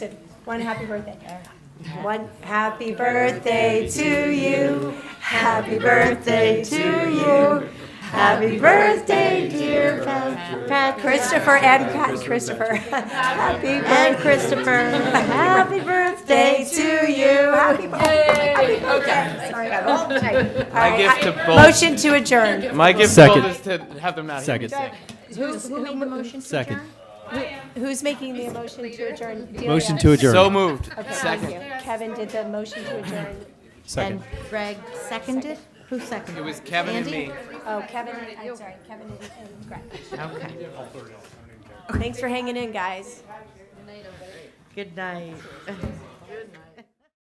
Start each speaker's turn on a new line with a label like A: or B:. A: One happy birthday. One happy birthday to you. Happy birthday to you. Happy birthday, dear Pat, Pat- Christopher and Pat Christopher. Happy birthday, Christopher. Happy birthday to you. Happy birthday. Okay. Sorry, I got all night. All right,
B: gift to
A: I-
B: both-
A: Motion to adjourn.
B: My gift to
C: Second.
B: both is to have them out here. in a
C: Second.
B: second.
A: Who- who made the motion?
C: Second.
A: Who's making the motion to adjourn? Delia?
C: Motion to adjourn.
B: So moved.
A: Okay, thank
B: Second.
A: you. Kevin did the motion to adjourn.
C: Second.
D: Greg seconded? Who seconded?
B: It was Kevin and
D: Andy?
B: me.
A: Oh, Kevin, and- I'm sorry, Kevin and- and Greg. Thanks for hanging in, guys.
D: Good night.